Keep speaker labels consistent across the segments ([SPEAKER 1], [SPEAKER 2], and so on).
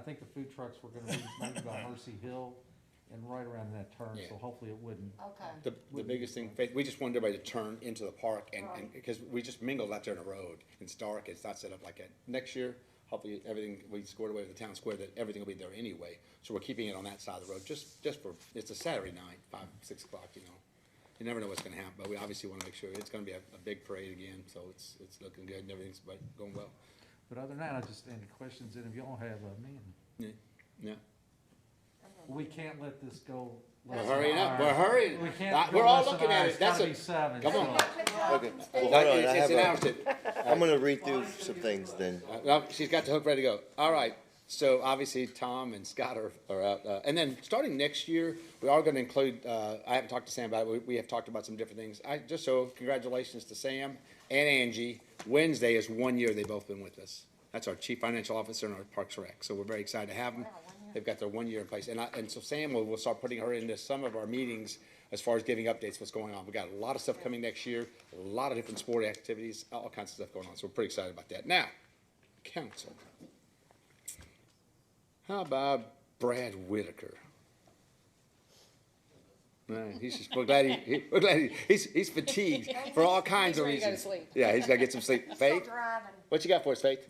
[SPEAKER 1] think the food trucks were gonna be maybe by Mercy Hill and right around that turn, so
[SPEAKER 2] Yeah.
[SPEAKER 1] hopefully it wouldn't.
[SPEAKER 3] Okay,
[SPEAKER 2] The, the biggest thing, Faith, we just wanted everybody to turn into the park and, and, because we just mingled out there in the road. It's dark, it's not set up like that. Next year, hopefully, everything, we scored away with the town square, that everything will be there anyway. So we're keeping it on that side of the road, just, just for, it's a Saturday night, five, six o'clock, you know. You never know what's gonna happen, but we obviously wanna make sure, it's gonna be a, a big parade again, so it's, it's looking good and everything's like, going well.
[SPEAKER 1] But other than that, I just, any questions, and if y'all have, I mean,
[SPEAKER 2] Yeah, yeah.
[SPEAKER 1] we can't let this go.
[SPEAKER 2] We're
[SPEAKER 1] less than
[SPEAKER 2] hurrying
[SPEAKER 1] an
[SPEAKER 2] up,
[SPEAKER 1] hour.
[SPEAKER 2] we're hurrying.
[SPEAKER 1] We
[SPEAKER 2] Uh,
[SPEAKER 1] can't. go
[SPEAKER 2] We're all
[SPEAKER 1] less than
[SPEAKER 2] looking
[SPEAKER 1] an hour.
[SPEAKER 2] at
[SPEAKER 1] It's
[SPEAKER 2] it, that's
[SPEAKER 1] gotta
[SPEAKER 2] a,
[SPEAKER 1] be seven,
[SPEAKER 2] come
[SPEAKER 1] so.
[SPEAKER 2] on.
[SPEAKER 4] Okay,
[SPEAKER 2] That-
[SPEAKER 4] hold on, I
[SPEAKER 2] It's
[SPEAKER 4] have
[SPEAKER 2] an hour
[SPEAKER 4] a,
[SPEAKER 2] to,
[SPEAKER 4] I'm gonna read through some things then.
[SPEAKER 2] Uh, well, she's got the hook ready to go. All right. So obviously Tom and Scott are, are out. Uh, and then starting next year, we are going to include, uh, I haven't talked to Sam about it. We, we have talked about some different things. I just so congratulations to Sam and Angie. Wednesday is one year they've both been with us. That's our chief financial officer and our parks rec. So we're very excited to have them. They've got their one year in place. And I, and so Sam will, will start putting her into some of our meetings as far as giving updates, what's going on. We've got a lot of stuff coming next year, a lot of different sport activities, all kinds of stuff going on. So we're pretty excited about that. Now, council. How about Brad Whitaker? Man, he's just, we're glad he, he- we're glad he, he's, he's fatigued for all kinds of
[SPEAKER 5] ready to go to
[SPEAKER 2] reasons.
[SPEAKER 5] sleep.
[SPEAKER 2] Yeah, he's gotta get some sleep.
[SPEAKER 3] still
[SPEAKER 2] Faith,
[SPEAKER 3] driving.
[SPEAKER 2] what you got for us, Faith?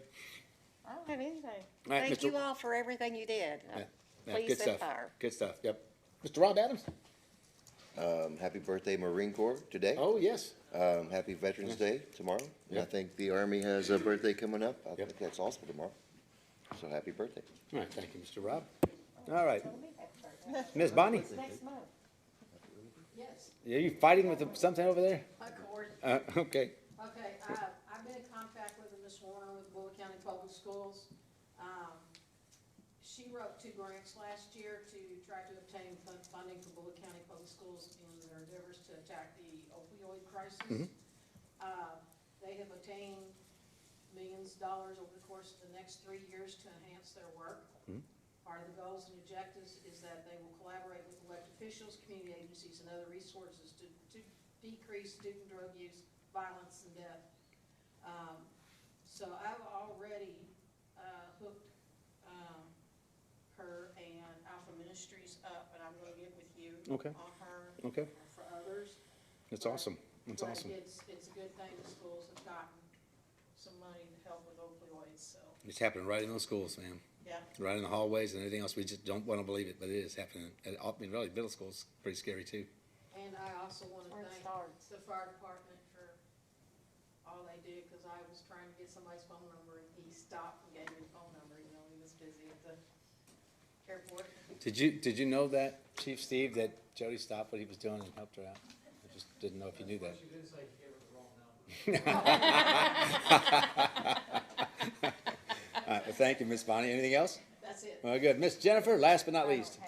[SPEAKER 5] I don't have anything.
[SPEAKER 2] All right,
[SPEAKER 5] Thank
[SPEAKER 2] Mr.
[SPEAKER 5] you all for everything you did.
[SPEAKER 2] Yeah, yeah,
[SPEAKER 5] Please
[SPEAKER 2] good
[SPEAKER 5] and
[SPEAKER 2] stuff.
[SPEAKER 5] fire.
[SPEAKER 2] Good stuff, yep. Mr. Rob Adams?
[SPEAKER 4] Um, happy birthday Marine Corps today.
[SPEAKER 2] Oh, yes.
[SPEAKER 4] Um, happy Veterans Day tomorrow. And I
[SPEAKER 2] Yep.
[SPEAKER 4] think the Army has a birthday coming up. I
[SPEAKER 2] Yep.
[SPEAKER 4] think that's also tomorrow. So happy birthday.
[SPEAKER 2] All right, thank you, Mr. Rob. All right. Ms. Bonnie?
[SPEAKER 5] Next month.
[SPEAKER 6] Yes,
[SPEAKER 2] Are you fighting with something over there?
[SPEAKER 6] of course.
[SPEAKER 2] Uh, okay.
[SPEAKER 6] Okay, uh, I've been in contact with Ms. Warner with Bullock County Public Schools. Um, She wrote two grants last year to try to obtain fun- funding for Bullock County Public Schools in their endeavors to attack the opioid crisis. Uh, They have obtained millions of dollars over the course of the next three years to enhance their work. Part of the goals and objectives is that they will collaborate with elected officials, community agencies, and other resources to, to decrease student drug use, violence, and death. Um, so I've already, uh, hooked, um, her and Alpha Ministries up, and I'm gonna get with you
[SPEAKER 2] Okay.
[SPEAKER 6] on her
[SPEAKER 2] Okay,
[SPEAKER 6] for others.
[SPEAKER 2] that's awesome, that's
[SPEAKER 6] But
[SPEAKER 2] awesome.
[SPEAKER 6] It's, it's a good thing the schools have gotten some money to help with opioids, so,
[SPEAKER 2] It's happening right in the schools, man,
[SPEAKER 6] yeah.
[SPEAKER 2] right in the hallways and everything else, we just don't wanna believe it, but it is happening. And, I mean, really, middle school's pretty scary too.
[SPEAKER 6] And I also wanna
[SPEAKER 5] Where it
[SPEAKER 6] thank
[SPEAKER 5] starts.
[SPEAKER 6] the fire department for all they do, cause I was trying to get somebody's phone number, and he stopped and gave me the phone number, you know, he was busy at the airport.
[SPEAKER 2] Did you, did you know that, Chief Steve, that Jody stopped what he was doing and helped her out? I just didn't know if you knew that. All right, well, thank you, Miss Bonnie, anything else?
[SPEAKER 6] That's it.
[SPEAKER 2] Well, good, Miss Jennifer, last but not least.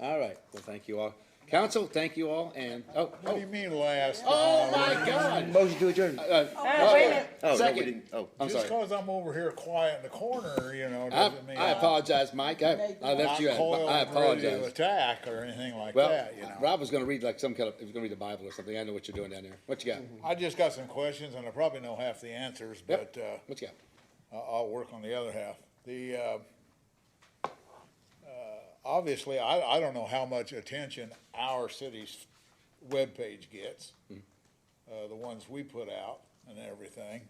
[SPEAKER 2] All right, well, thank you all. Council, thank you all, and, oh,
[SPEAKER 7] What do
[SPEAKER 2] oh,
[SPEAKER 7] you mean last?
[SPEAKER 2] oh my God!
[SPEAKER 4] Motion to adjourn.
[SPEAKER 2] Uh, uh,
[SPEAKER 4] Oh, no, we
[SPEAKER 2] Second.
[SPEAKER 4] didn't. Oh.
[SPEAKER 2] I'm
[SPEAKER 7] Just
[SPEAKER 2] sorry.
[SPEAKER 7] cause I'm over here quiet in the corner, you know,
[SPEAKER 2] I,
[SPEAKER 7] doesn't mean.
[SPEAKER 2] I apologize, Mike. I, I left you.
[SPEAKER 7] I'm
[SPEAKER 2] at-
[SPEAKER 7] coiled
[SPEAKER 2] I
[SPEAKER 7] and ready to
[SPEAKER 2] apologize.
[SPEAKER 7] attack or anything like
[SPEAKER 2] Well,
[SPEAKER 7] that, you know.
[SPEAKER 2] Rob was gonna read like some kind of, he was gonna read the Bible or something. I know what you're doing down there. What you got?
[SPEAKER 7] I just got some questions and I probably know half the answers,
[SPEAKER 2] Yep.
[SPEAKER 7] but, uh,
[SPEAKER 2] What you got?
[SPEAKER 7] I'll, I'll work on the other half. The, uh, uh, obviously, I, I don't know how much attention our city's webpage gets, uh, the ones we put out and everything.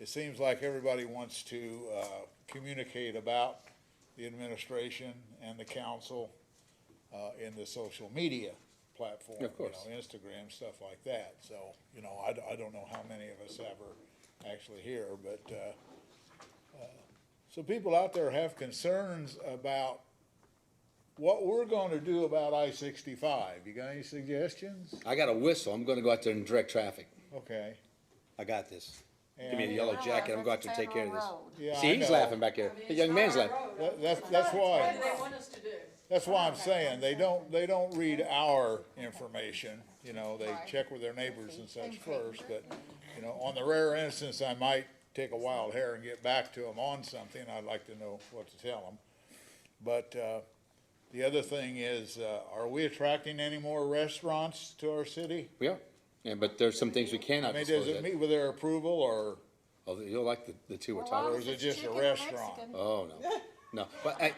[SPEAKER 7] It seems like everybody wants to, uh, communicate about the administration and the council, uh, in the social media platform.
[SPEAKER 2] Of course.
[SPEAKER 7] You know, Instagram, stuff like that. So, you know, I, d- I don't know how many of us ever actually hear, but, uh, so people out there have concerns about what we're gonna do about I sixty-five. You got any suggestions?
[SPEAKER 2] I got a whistle. I'm gonna go out there and direct traffic.
[SPEAKER 7] Okay.
[SPEAKER 2] I got this. Give me a
[SPEAKER 7] And
[SPEAKER 2] yellow
[SPEAKER 3] Yeah,
[SPEAKER 2] jacket. I'm
[SPEAKER 3] that's
[SPEAKER 2] going out
[SPEAKER 3] the
[SPEAKER 2] there and take care of
[SPEAKER 3] same old
[SPEAKER 2] this.
[SPEAKER 7] road.
[SPEAKER 2] See,
[SPEAKER 7] Yeah, I
[SPEAKER 2] he's
[SPEAKER 7] know.
[SPEAKER 2] laughing back there.
[SPEAKER 6] I mean,
[SPEAKER 2] The
[SPEAKER 6] it's
[SPEAKER 2] young
[SPEAKER 6] not
[SPEAKER 2] man's
[SPEAKER 6] our
[SPEAKER 2] laughing.
[SPEAKER 6] road.
[SPEAKER 7] that, that's,
[SPEAKER 6] What
[SPEAKER 7] that's
[SPEAKER 6] do
[SPEAKER 7] why,
[SPEAKER 6] they want us to do?
[SPEAKER 7] that's why I'm saying, they don't, they don't read our information. You know, they check with their neighbors and such first, but, you know, on the rare instance, I might take a wild hair and get back to them on something. I'd like to know what to tell them. But, uh, the other thing is, uh, are we attracting any more restaurants to our city?
[SPEAKER 2] We are. Yeah, but there's some things we
[SPEAKER 7] I
[SPEAKER 2] cannot
[SPEAKER 7] mean, does
[SPEAKER 2] disclose.
[SPEAKER 7] it
[SPEAKER 2] yet.
[SPEAKER 7] meet with their approval or?
[SPEAKER 2] Oh, You'll like the, the two we're
[SPEAKER 3] Well,
[SPEAKER 2] talking
[SPEAKER 3] why
[SPEAKER 2] about.
[SPEAKER 7] is it just a
[SPEAKER 3] chicken or
[SPEAKER 7] restaurant?
[SPEAKER 3] Mexican?
[SPEAKER 2] Oh, no. No, but I,